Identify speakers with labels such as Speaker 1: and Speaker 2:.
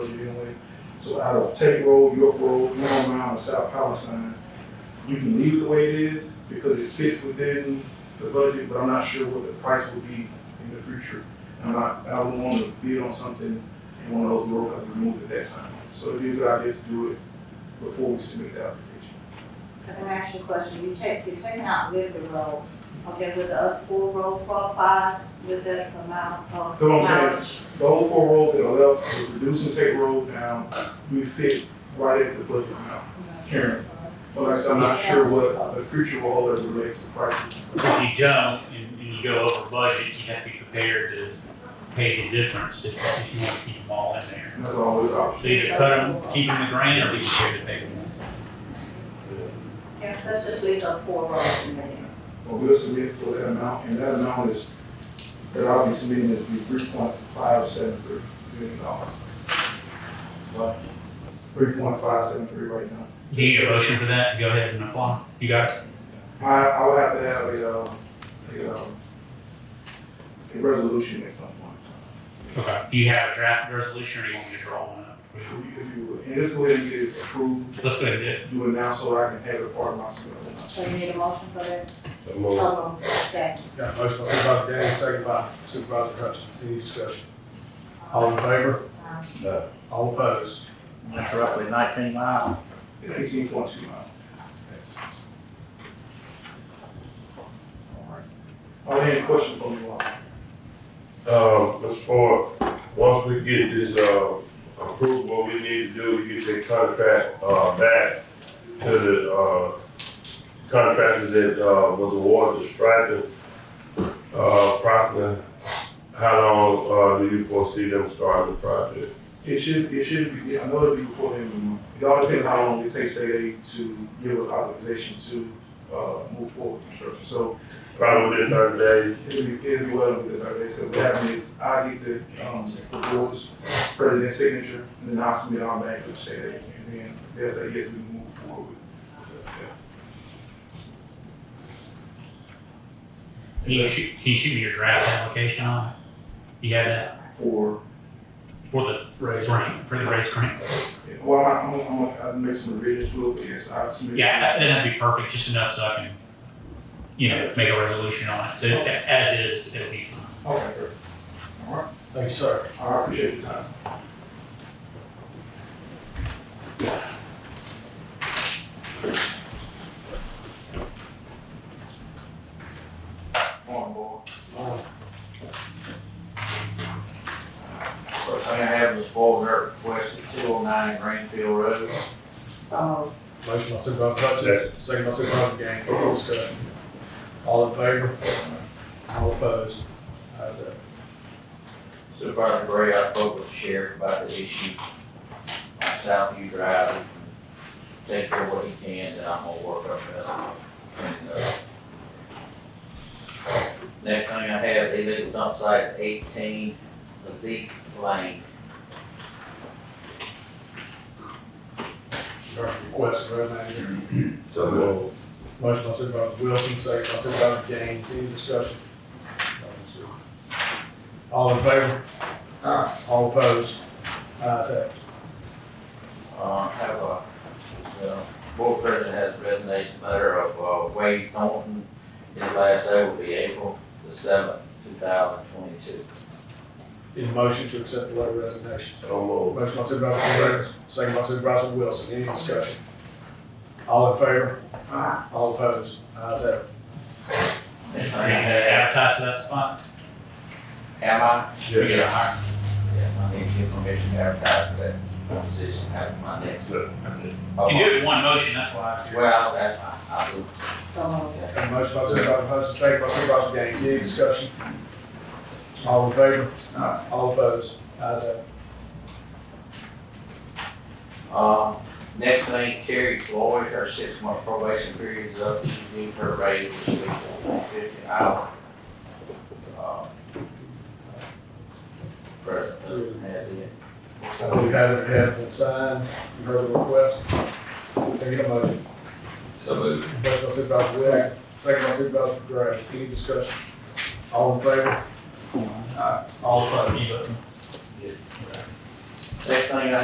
Speaker 1: Greenway. So out of Tate Road, York Road, Long Mound, and South Palestine, you can leave it the way it is because it fits within the budget, but I'm not sure what the price will be in the future. And I'm not, I don't want to bid on something and one of those roads have to move at that time. So it'd be a good idea to do it before we submit the application.
Speaker 2: I can ask you a question, you take, you're taking out Liberty Road, okay, with the other four roads qualified with the amount of
Speaker 1: Come on, Sam.
Speaker 2: mileage?
Speaker 1: The whole four road that are left, we're reducing Tate Road down, we fit right at the budget amount, Karen. But like I said, I'm not sure what the future will hold as it relates to prices.
Speaker 3: If you don't, and, and you go over budget, you have to be prepared to pay the difference if, if you want to keep them all in there.
Speaker 1: And that's always an option.
Speaker 3: So either cut them, keep them in the grant, or be prepared to pay them.
Speaker 2: Yeah, let's just leave those four roads in there.
Speaker 1: But we'll submit for that amount, and that amount is, that I'll be submitting is be three point five seven three million dollars. But three point five seven three right now.
Speaker 3: Do you need a motion for that to go ahead and apply? You got it?
Speaker 1: I, I would have to have a, uh, a, um, a resolution at some point.
Speaker 3: Okay. Do you have a draft resolution, or you want me to draw one up?
Speaker 1: If you- if you would. And this way, get it approved,
Speaker 3: Let's go ahead and do it.
Speaker 1: do it now so I can have it part of my submission.
Speaker 2: So you need a motion for that?
Speaker 4: So moved.
Speaker 2: So, moved. second.
Speaker 5: Got a motion by Supervisor Gaines, second by Supervisor Hutchins. Any discussion? All in favor?
Speaker 2: Um,
Speaker 4: No.
Speaker 5: All opposed?
Speaker 6: That's roughly nineteen miles.
Speaker 1: Eighteen point two miles. Are there any questions from you all?
Speaker 4: Um, Mr. Ford, once we get this, uh, approved, what we need to do to get the contract, uh, back to the, uh, contractor that, uh, was awarded the striping, uh, property, how long, uh, do you foresee them starting the project?
Speaker 1: It should, it should be, I know it'll be before the end of the month. It all depends how long it takes they to give us authorization to, uh, move forward with construction. So
Speaker 4: Probably within thirty days.
Speaker 1: it'll be, it'll be well within thirty days. So what happens is I get the, um, the board's president's signature, and then I submit all back to the state, aid, and then they'll say, yes, we can move forward with it.
Speaker 3: Can you shoot, can you shoot me your draft application on it? You have that
Speaker 1: For,
Speaker 3: for the
Speaker 5: Raise.
Speaker 3: grant, for the raise grant?
Speaker 1: yeah, well, I'm, I'm, I'm, I'll make some revisions to it, but yes, I'll submit.
Speaker 3: Yeah, that- that'd be perfect, just enough so I can, you know, make a resolution on it. So as is, it'll be fine.
Speaker 1: Okay, great. All right,
Speaker 5: Thank you, sir.
Speaker 1: I appreciate your time. Morning, boy.
Speaker 6: First thing I have is a spoil dirt request at two oh nine Greenfield Road.
Speaker 2: So,
Speaker 5: Motion by Supervisor Hutchins, second by Supervisor Gaines. Any discussion? All in favor? All opposed? Ayes have it.
Speaker 6: Supervisor Gray, I spoke with the sheriff about the issue on Southview Drive. He can Take care of what he can, then I'm gonna work on that. And, uh, Next thing I have, illegal dump site at eighteen Zeke Lane.
Speaker 5: Direct request, road manager.
Speaker 4: So moved.
Speaker 5: Motion by Supervisor Wilson, second by Supervisor Gaines. Any discussion? All in favor? All opposed? Ayes have it.
Speaker 6: Uh, have a, the board president has a resignation letter of uh, Wade Thornton. His last day will be April the seventh, two thousand twenty-two.
Speaker 5: Need a motion to accept the letter of resignation.
Speaker 4: So moved.
Speaker 5: Motion by Supervisor Gray, second by Supervisor Wilson, any discussion? All in favor?
Speaker 2: Aye.
Speaker 5: All opposed? Ayes have it.
Speaker 6: Next thing I have,
Speaker 3: Advertise for that spot.
Speaker 6: am I?
Speaker 4: Yeah.
Speaker 6: Yeah, I need to get permission to advertise for that position after my next.
Speaker 3: You can do it in one motion, that's why. I figured.
Speaker 6: Well, that's fine, I'll do.
Speaker 2: so, moved.
Speaker 5: Got a motion by Supervisor Hutchins, second by Supervisor Gaines, any discussion? All in favor? All opposed? Ayes have it.
Speaker 6: Uh, next thing, Terry Floyd, her six-month probation period is up, she's due for a raise, which will be fourteen fifty an hour. Uh, President has it.
Speaker 5: Uh, We have, it has been signed, you heard the request. Can I get a motion?
Speaker 4: So moved.
Speaker 5: Motion by Supervisor Wilson, second by Supervisor Gray, any discussion? All in favor? All opposed?
Speaker 6: Next thing I